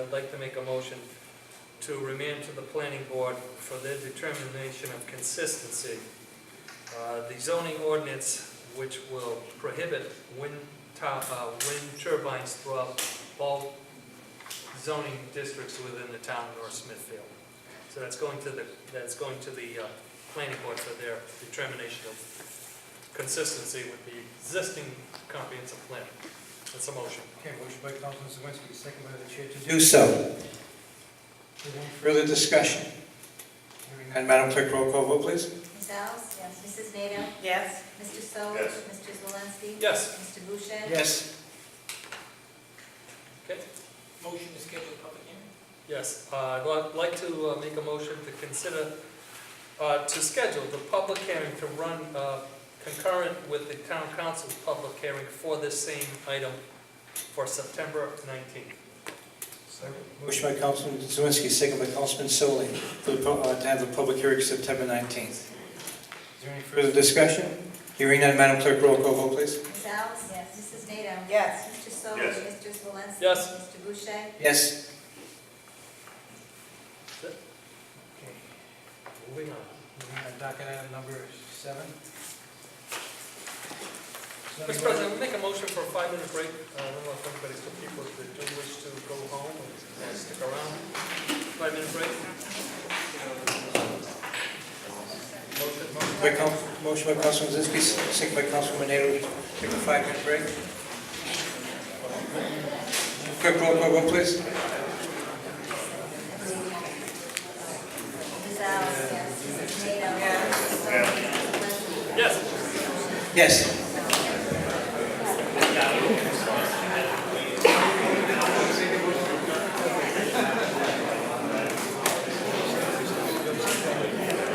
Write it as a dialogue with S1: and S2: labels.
S1: I'd like to make a motion to remand to the planning board for their determination of consistency. Uh, The zoning ordinance which will prohibit wind tu- uh, wind turbines throughout all zoning districts within the town of North Smithfield. So that's going to the, that's going to the uh, planning board for their determination of consistency with the existing comprehensive plan. That's a motion.
S2: Okay, motion by Councilman Zawinski, second by the chair to do.
S3: Do so.
S2: Anyone
S3: Further discussion?
S2: further?
S3: And Madam Clerk, roll call vote, please.
S4: Ms. Alves? Yes. Mrs. Nato?
S5: Yes.
S4: Mr. Sol?
S6: Yes.
S4: Mr. Zelinski?
S1: Yes,
S4: Mr. Boucher?
S3: Yes.
S5: Motion to schedule a public hearing?
S1: yes. Uh, I'd li- like to uh, make a motion to consider, uh, to schedule the public hearing to run uh, concurrent with the town council's public hearing for this same item for September 19th.
S3: Motion by Councilman Zawinski, second by Councilman Solly, for the pu- uh, to have the public hearing September 19th.
S2: Is there any
S3: Further
S2: further?
S3: discussion? Hearing none, Madam Clerk, roll call vote, please.
S4: Ms. Alves? Yes. Mrs. Nato?
S5: Yes.
S4: Mr. Sol?
S6: Yes.
S4: Mr. Zelinski?
S1: Yes.
S4: Mr. Boucher?
S3: Yes.
S2: Okay,
S1: Moving on.
S2: moving on, docket item number seven.
S1: Mr.
S2: Somebody wanna-
S1: President, we make a motion for a five-minute break. Uh, I don't know if anybody's, for people that do wish to go home or stick around. Five-minute break. Motion- motion-
S3: By Coun- Motion by Councilman Zawinski, second by Councilman Nato, take a five-minute break. Clerk, roll call vote, please.
S4: Ms. Alves? Yes. Mrs. Nato? Mr. Sol? Mr. Zelinski?
S1: Yes.
S3: Yes.